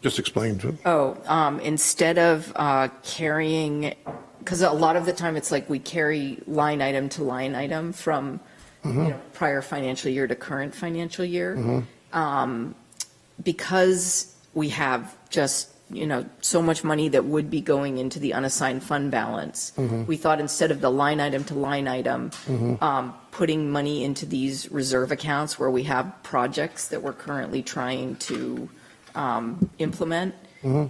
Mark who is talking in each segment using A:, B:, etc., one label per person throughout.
A: Just explain to
B: Oh, um, instead of uh, carrying, because a lot of the time it's like we carry line item to line item from, you know, prior financial year to current financial year. Um, Because we have just, you know, so much money that would be going into the unassigned fund balance, we thought instead of the line item to line item, um, putting money into these reserve accounts where we have projects that we're currently trying to um, implement,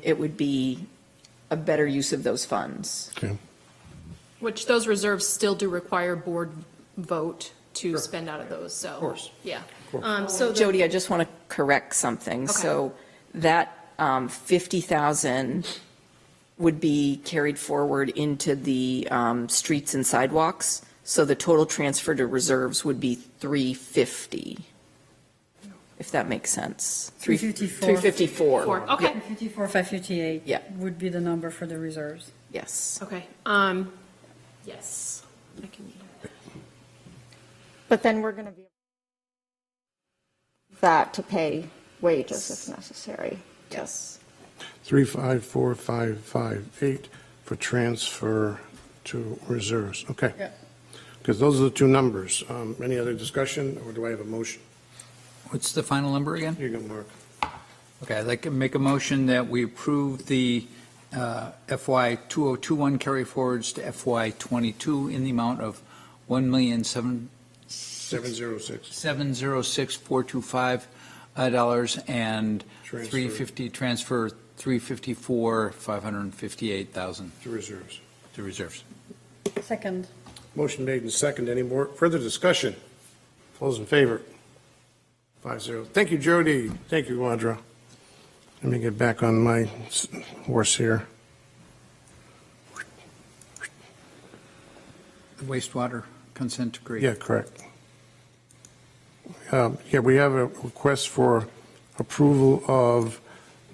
B: it would be a better use of those funds.
A: Okay.
C: Which those reserves still do require board vote to spend out of those, so. Of course. Yeah. Um, so the-
B: Jody, I just want to correct something.
C: Okay.
B: So that um, 50,000 would be carried forward into the um, streets and sidewalks. So the total transfer to reserves would be 350, if that makes sense. Three-
D: 354.
B: 354,
C: Four, Oh. okay,
D: 54, 558.
B: Yeah.
D: Would be the number for the reserves.
B: yes.
C: okay, um, yes, I can,
E: But then we're going to be that to pay wages if necessary.
B: Yes.
A: Three, five, four, five, five, eight for transfer to reserves. Okay.
D: Yeah.
A: Because those are the two numbers. Um, Any other discussion, or do I have a motion?
F: What's the final number again?
A: Here you go, Mark.
F: Okay, I'd like to make a motion that we approve the uh, FY 2021 carry forwards to FY '22 in the amount of one million seven
A: 706.
F: seven zero six four two five uh, dollars and
A: Transfer.
F: 350, transfer 354, 558,000
A: To reserves.
F: to reserves.
D: Second,
A: Motion made and second. Any more, further discussion? Those in favor? Five zero. Thank you, Jody. Thank you, Audra. Let me get back on my s- horse here.
F: The Wastewater consent decree.
A: Yeah, correct. Um, Yeah, we have a request for approval of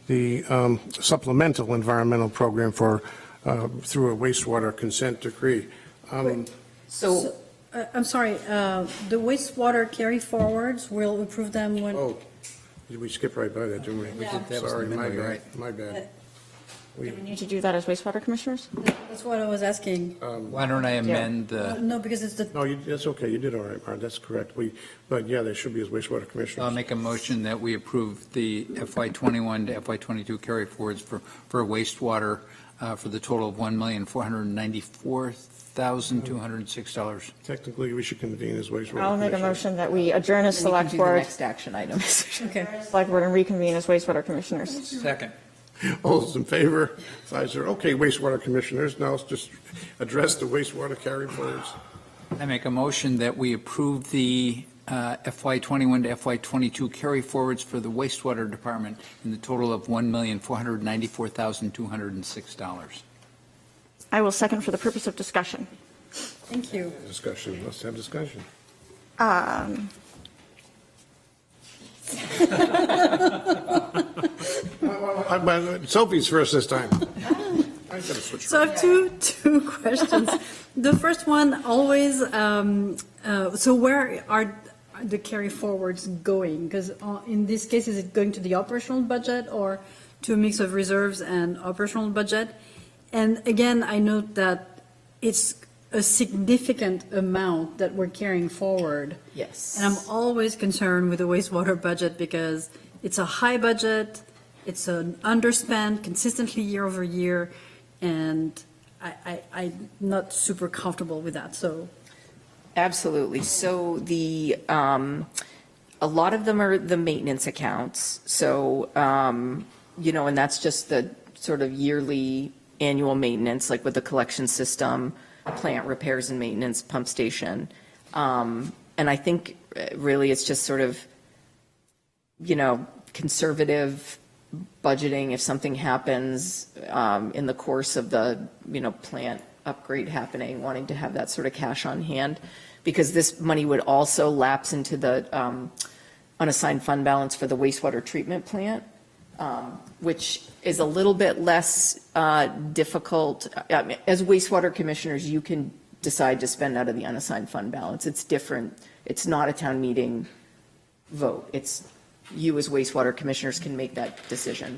A: the um, supplemental environmental program for, uh, through a wastewater consent decree. Um,
B: So
D: Uh, I'm sorry, uh, the wastewater carry forwards, we'll approve them when,
A: Oh, did we skip right by that, didn't we? We
F: did. That was
A: Sorry,
F: in the
A: my
F: middle,
A: bad,
F: right.
A: my bad.
E: Do we need to do that as wastewater commissioners?
D: that's what I was asking. Uh,
F: Why don't I amend the,
D: No, because it's the,
A: No, you- that's okay, you did all right, Mark, that's correct. We, but yeah, there should be as wastewater
F: I'll
A: commissioners.
F: make a motion that we approve the FY '21 to FY '22 carry forwards for, for wastewater uh, for the total of $1,494,206.
A: Technically, we should convene as wastewater.
E: I'll make a
A: commissioners.
E: motion that we adjourn as
B: then you can
E: select
B: do the
E: board,
B: next action item.
D: okay.
E: select board and reconvene as wastewater commissioners.
F: Second.
A: All those in favor? Five zero. Okay, wastewater commissioners, now let's just address the wastewater carry forwards.
F: I make a motion that we approve the uh, FY '21 to FY '22 carry forwards for the wastewater department in the total of $1,494,206.
E: I will second for the purpose of discussion.
D: Thank you.
A: Discussion, let's have discussion.
E: Um,
A: Uh, I- I- Sophie's first this time. I gotta switch.
D: So I have two, two questions. The first one, always, um, uh, so where are the carry forwards going? Because in this case, is it going to the operational budget or to a mix of reserves and operational budget? And again, I note that it's a significant amount that we're carrying forward.
B: Yes.
D: And I'm always concerned with the wastewater budget because it's a high budget, it's an underspend consistently year over year, and I, I, I'm not super comfortable with that, so.
B: Absolutely. So the, um, a lot of them are the maintenance accounts. So, um, you know, and that's just the sort of yearly annual maintenance, like with the collection system, plant repairs and maintenance, pump station. Um, and I think uh, really it's just sort of, you know, conservative budgeting if something happens um, in the course of the, you know, plant upgrade happening, wanting to have that sort of cash on hand, because this money would also lapse into the um, unassigned fund balance for the wastewater treatment plant, um, which is a little bit less uh, difficult. I mean, As wastewater commissioners, you can decide to spend out of the unassigned fund balance. It's different. It's not a town meeting vote. It's, you as wastewater commissioners can make that decision.